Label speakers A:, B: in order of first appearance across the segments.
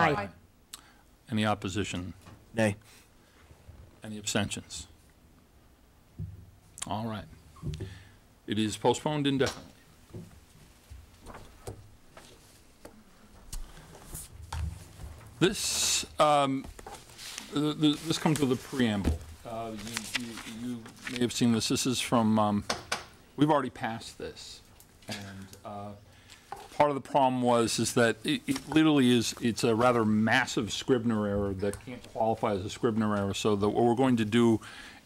A: Aye.
B: Any opposition?
C: Nay.
B: Any abstentions? All right. It is postponed indefinitely. This, um, th- th- this comes with a preamble. Uh, You you- you may have seen this. This is from, um, we've already passed this. And uh, part of the problem was, is that it it literally is, it's a rather massive Scribner error that can't qualify as a Scribner error. So that what we're going to do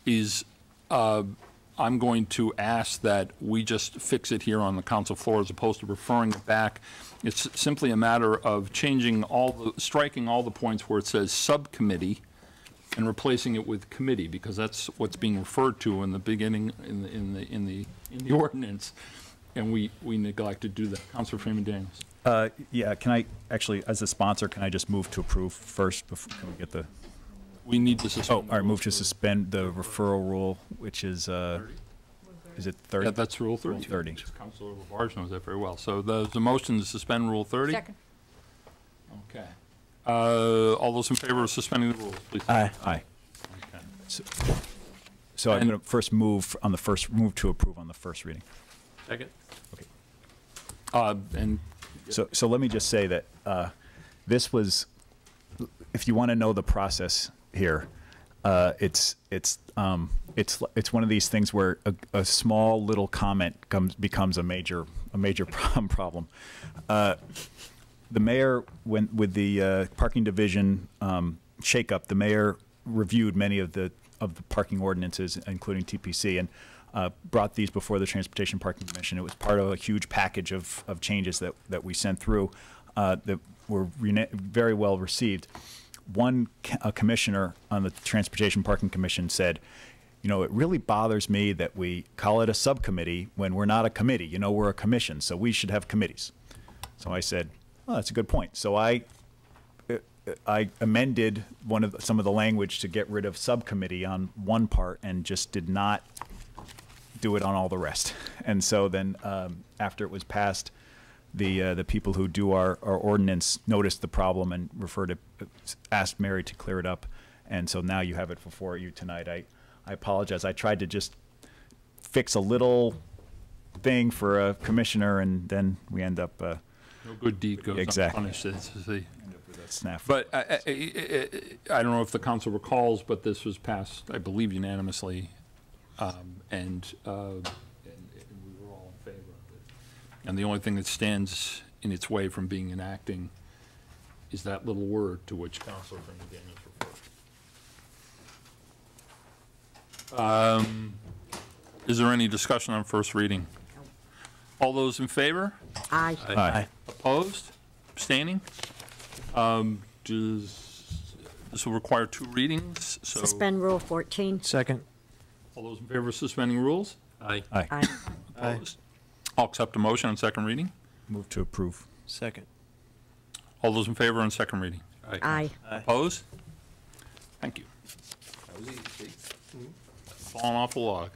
B: is, uh, I'm going to ask that we just fix it here on the council floor as opposed to referring it back. It's simply a matter of changing all, the striking all the points where it says subcommittee and replacing it with committee, because that's what's being referred to in the beginning, in the, in the, in the, in the ordinance, and we, we neglected to do that. Counselor Freeman Daniels.
D: Uh, yeah, can I, actually, as a sponsor, can I just move to approve first before, can we get the,
B: We need to
D: oh,
B: suspend.
D: all right, move to suspend the referral rule, which is, uh, is it
B: Yeah,
D: 30?
B: that's Rule 30.
D: Rule 30.
B: Counselor LaBarge knows that very well. So there's a motion to suspend Rule 30.
A: Second.
B: Okay. Uh, all those in favor of suspending the rules, please.
C: Aye.
D: Aye.
B: Okay.
D: So I'm
B: And-
D: going to first move on the first, move to approve on the first reading.
B: Second.
D: Okay.
B: Uh, and
D: So, so let me just say that uh, this was, if you want to know the process here, uh, it's it's um, it's it's one of these things where a, a small little comment comes becomes a major a major problem problem. Uh, the mayor went with the uh, parking division um, shakeup. The mayor reviewed many of the of the parking ordinances, including TPC, and uh, brought these before the Transportation Parking Commission. It was part of a huge package of, of changes that that we sent through uh, that were rena- very well received. One c- a commissioner on the Transportation Parking Commission said, you know, it really bothers me that we call it a subcommittee when we're not a committee. You know, we're a commission, so we should have committees. So I said, "Oh, that's a good point." So I, uh, I amended one of the- some of the language to get rid of subcommittee on one part and just did not do it on all the rest. And so then, um, after it was passed, the uh, the people who do our, our ordinance noticed the problem and referred to asked Mary to clear it up. And so now you have it before you tonight. I I apologize. I tried to just fix a little thing for a commissioner, and then we end up. Uh,
B: no good deed goes
D: Exactly.
B: unpunished. It's the-
D: Snafu.
B: But uh, I, I- I, uh, I I don't know if the council recalls, but this was passed, I believe unanimously, um, and, uh, and and we were all in favor of it. And the only thing that stands in its way from being enacting is that little word to which Counselor Freeman Daniels referred. Um, Is there any discussion on first reading? All those in favor?
A: Aye.
D: Aye.
B: Opposed? Abstaining? Um, Does, this will require two readings, so.
A: Suspend Rule 14.
C: Second.
B: All those in favor of suspending rules?
E: Aye.
D: Aye.
A: Aye.
B: Opposed? I'll accept a motion on second reading.
D: Move to approve.
C: Second.
B: All those in favor on second reading?
A: Aye.
B: Opposed? Thank you. That was easy, see? Falling off the log.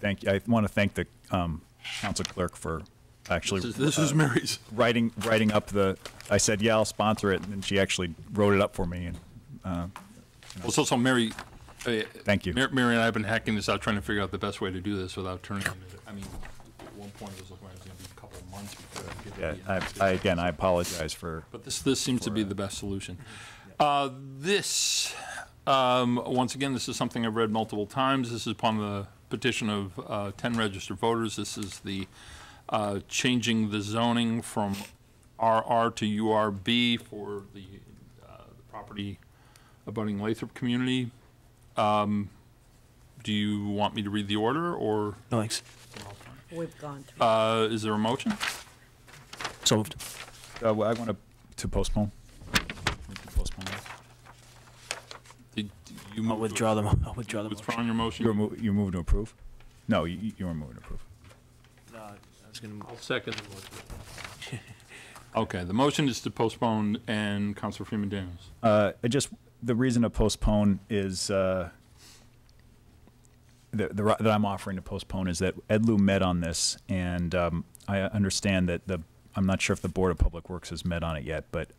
D: Thank you. I want to thank the um, council clerk for actually
B: This is- This is Mary's.
D: writing writing up the. I said, "Yeah, I'll sponsor it," and then she actually wrote it up for me. And
B: Well, it's also Mary. uh,
D: Thank you.
B: Mar- Mary and I have been hacking this out, trying to figure out the best way to do this without turning into, I mean, at one point it was looking like it was going to be a couple of months before I could.
D: yeah,
B: be
D: I,
B: enacted.
D: I, again, I apologize for.
B: But this, this seems to be the best solution. Uh, This, um, once again, this is something I've read multiple times. This is upon the petition of uh, 10 registered voters. This is the uh, changing the zoning from RR to URB for the uh, the property abutting Lathrop community. Um, Do you want me to read the order, or
C: No thanks.
A: We've gone through.
B: uh, is there a motion?
C: So moved.
D: Uh, well, I want to to postpone. Move to postpone.
B: Did you
C: I'll
B: move to-
C: withdraw them. I'll withdraw them.
B: Withdrawing your motion?
D: You were mo- you move to approve. No, you, you were moving to approve.
C: I was gonna
E: I'll second the motion.
B: Okay, the motion is to postpone, and Councilor Freeman Daniels.
D: Uh, I just, the reason to postpone is, uh, the- the ri- that I'm offering to postpone is that Ed Lou met on this, and um, I understand that the, I'm not sure if the Board of Public Works has met on it yet, but